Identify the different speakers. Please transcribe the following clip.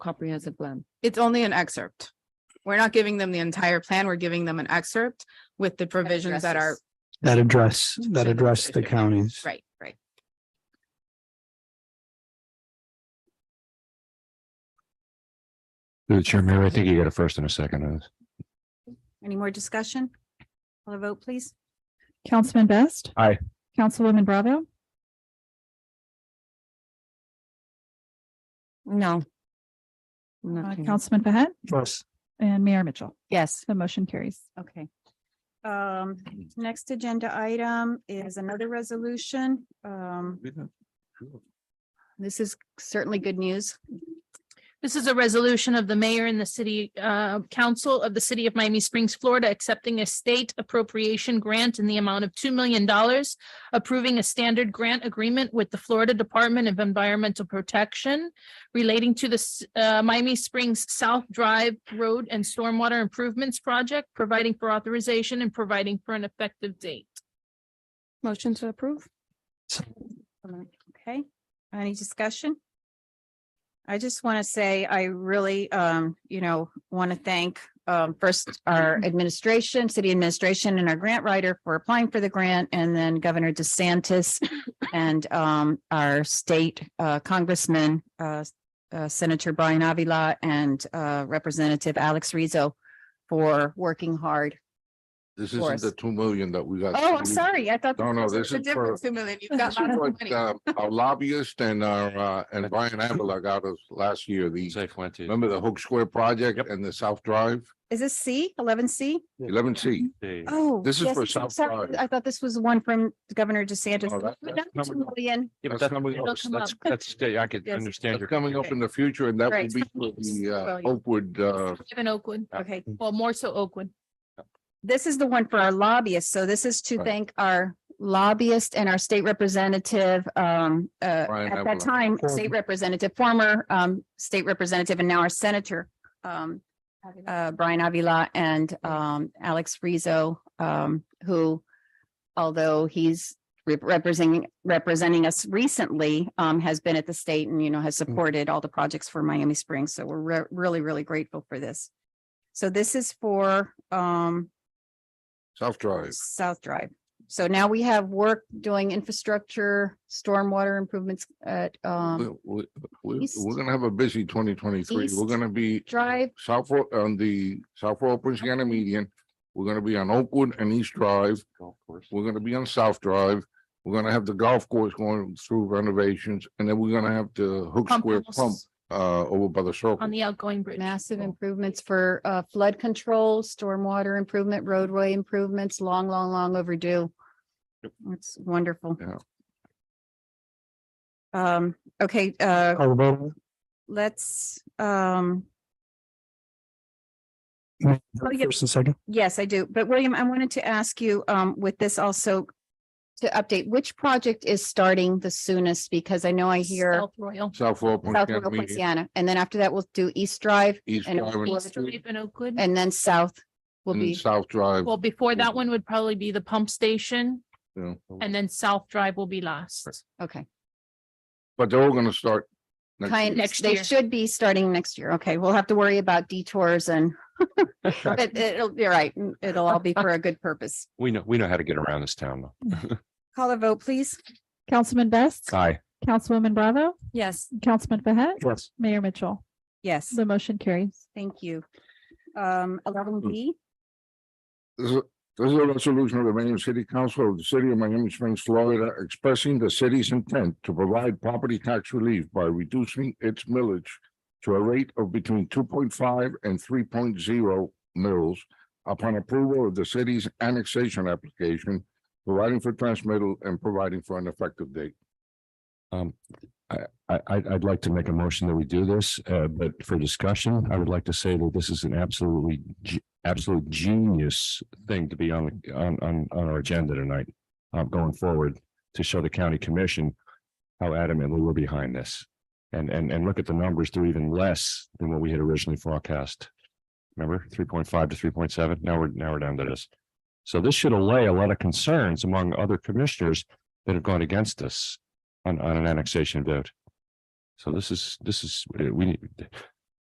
Speaker 1: comprehensive plan.
Speaker 2: It's only an excerpt. We're not giving them the entire plan. We're giving them an excerpt with the provisions that are,
Speaker 1: addresses-
Speaker 3: that address, that address the counties.
Speaker 2: right, right.
Speaker 4: Through the chair, Mayor, I think you got a first and a second on this.
Speaker 2: Any more discussion? Call a vote, please.
Speaker 5: Councilman Best.
Speaker 4: Aye.
Speaker 5: Councilwoman Bravo,
Speaker 1: No.
Speaker 5: uh,
Speaker 1: Nothing.
Speaker 5: Councilman Fahet,
Speaker 3: Yes.
Speaker 5: and Mayor Mitchell.
Speaker 1: Yes,
Speaker 5: The motion carries.
Speaker 1: okay.
Speaker 6: Um, next agenda item is another resolution. Um,
Speaker 2: This is certainly good news.
Speaker 7: This is a resolution of the mayor and the city uh, council of the city of Miami Springs, Florida, accepting a state appropriation grant in the amount of two million dollars, approving a standard grant agreement with the Florida Department of Environmental Protection relating to the s- uh, Miami Springs South Drive Road and Stormwater Improvements Project, providing for authorization and providing for an effective date.
Speaker 1: Motion to approve?
Speaker 6: okay, any discussion? I just want to say I really, um, you know, want to thank, um, first our administration, city administration and our grant writer for applying for the grant and then Governor DeSantis and, um, our state, uh, Congressman, uh, uh, Senator Brian Avila and, uh, Representative Alex Rizzo for working hard.
Speaker 8: This
Speaker 6: For
Speaker 8: isn't the
Speaker 6: us.
Speaker 8: two million that we got.
Speaker 6: Oh, I'm sorry. I thought.
Speaker 8: Mm. No, no, this
Speaker 2: The
Speaker 8: is for,
Speaker 2: difference, two million, you've
Speaker 8: this
Speaker 2: got
Speaker 8: is
Speaker 2: lots of
Speaker 8: what,
Speaker 2: money.
Speaker 8: uh, our lobbyist and our, uh, and Brian Abela got us last year, the,
Speaker 4: Safe went to.
Speaker 8: remember the Hook Square project
Speaker 4: Yep.
Speaker 8: and the South Drive,
Speaker 6: Is this C, eleven C?
Speaker 8: eleven C.
Speaker 6: Oh.
Speaker 8: This is
Speaker 6: yes,
Speaker 8: for
Speaker 6: I'm
Speaker 8: South
Speaker 6: sorry.
Speaker 8: Florida.
Speaker 6: I thought this was one from Governor DeSantis.
Speaker 8: Oh, that-
Speaker 6: But
Speaker 8: that's
Speaker 6: not
Speaker 8: coming
Speaker 6: two
Speaker 8: up.
Speaker 6: million.
Speaker 4: Yeah, but that's,
Speaker 8: That's coming up.
Speaker 4: that's, that's, that's- I could
Speaker 7: Yes.
Speaker 4: understand.
Speaker 8: That's
Speaker 4: your-
Speaker 8: coming up in the future and that will
Speaker 6: Right.
Speaker 8: be for the, uh,
Speaker 7: Well, yeah.
Speaker 8: Oakwood, uh,
Speaker 7: In Oakwood,
Speaker 6: Okay,
Speaker 7: well, more so Oakwood.
Speaker 6: this is the one for our lobbyists. So this is to
Speaker 8: Right.
Speaker 6: thank our lobbyist and our state representative, um, uh,
Speaker 8: Brian
Speaker 6: at that
Speaker 8: Avila.
Speaker 6: time,
Speaker 3: Former.
Speaker 6: state representative, former, um, state representative and now our senator, um, uh, Brian Avila and, um, Alex Rizzo, um, who, although he's re- representing, representing us recently, um, has been at the state and, you know, has supported all the projects for Miami Springs. So we're re- really, really grateful for this. So this is for, um,
Speaker 8: South Drive.
Speaker 6: South Drive. So now we have work doing infrastructure, stormwater improvements at, um,
Speaker 8: We, we, we-
Speaker 6: East.
Speaker 8: we're gonna have a busy twenty twenty-three. We're
Speaker 6: East.
Speaker 8: gonna be
Speaker 6: Drive.
Speaker 8: South, Ro- on the South Road, Prince County Median. We're gonna be on Oakwood and East Drive.
Speaker 4: Golf course.
Speaker 8: We're gonna be on South Drive. We're gonna have the golf course going through renovations and then we're gonna have the Hook
Speaker 7: Pump
Speaker 8: Square
Speaker 7: house
Speaker 8: pump uh over by the circle.
Speaker 7: On the outgoing bridge.
Speaker 6: Massive improvements for uh, flood control, stormwater improvement, roadway improvements, long, long, long overdue. It's wonderful.
Speaker 8: Yeah.
Speaker 6: Um, okay, uh,
Speaker 3: Call the vote.
Speaker 6: let's, um, yeah.
Speaker 3: First and second.
Speaker 6: yes, I do. But William, I wanted to ask you, um, with this also to update, which project is starting the soonest? Because I know I hear
Speaker 7: South Royal.
Speaker 8: South Road. Prince
Speaker 6: South
Speaker 8: County
Speaker 6: Royal
Speaker 8: Median,
Speaker 6: Poinciana, and then after that, we'll do East Drive
Speaker 8: East
Speaker 6: and
Speaker 8: Drive and-
Speaker 7: East Drive in Oakwood.
Speaker 6: and then South will
Speaker 8: and
Speaker 6: be,
Speaker 8: South Drive.
Speaker 7: Well, before that one would probably be the pump station
Speaker 8: you know,
Speaker 7: and then South Drive will be last.
Speaker 6: okay.
Speaker 8: But they're all gonna start. next
Speaker 6: Kind,
Speaker 8: year.
Speaker 7: Next
Speaker 6: they
Speaker 7: year.
Speaker 6: should be starting next year. Okay, we'll have to worry about detours and but it'll be right. Mm, It'll all be for a good purpose.
Speaker 4: We know, we know how to get around this town. though.
Speaker 6: Call a vote, please.
Speaker 5: Councilman Best.
Speaker 4: Aye.
Speaker 5: Councilwoman Bravo,
Speaker 6: Yes.
Speaker 5: Councilman Fahet,
Speaker 3: Yes.
Speaker 5: Mayor Mitchell.
Speaker 6: Yes,
Speaker 5: The motion carries.
Speaker 6: thank you. Um, eleven B,
Speaker 8: This is, this is a resolution of the Miami City Council of the City of Miami Springs, Florida, expressing the city's intent to provide property tax relief by reducing its millage to a rate of between two point five and three point zero mills upon approval of the city's annexation application, providing for transmittal and providing for an effective date.
Speaker 4: Um, I, I, I'd, I'd like to make a motion that we do this, uh, but for discussion, I would like to say that this is an absolutely, ge- absolute genius thing to be on, the- on, on, on our agenda tonight. Uh, going forward to show the county commission how adamantly we're behind this. And, and, and look at the numbers, they're even less than what we had originally forecast. Remember, three point five to three point seven, now we're, now we're down to this. So this should allay a lot of concerns among other commissioners that have gone against us on, on an annexation vote. So this is, this is, uh, we need,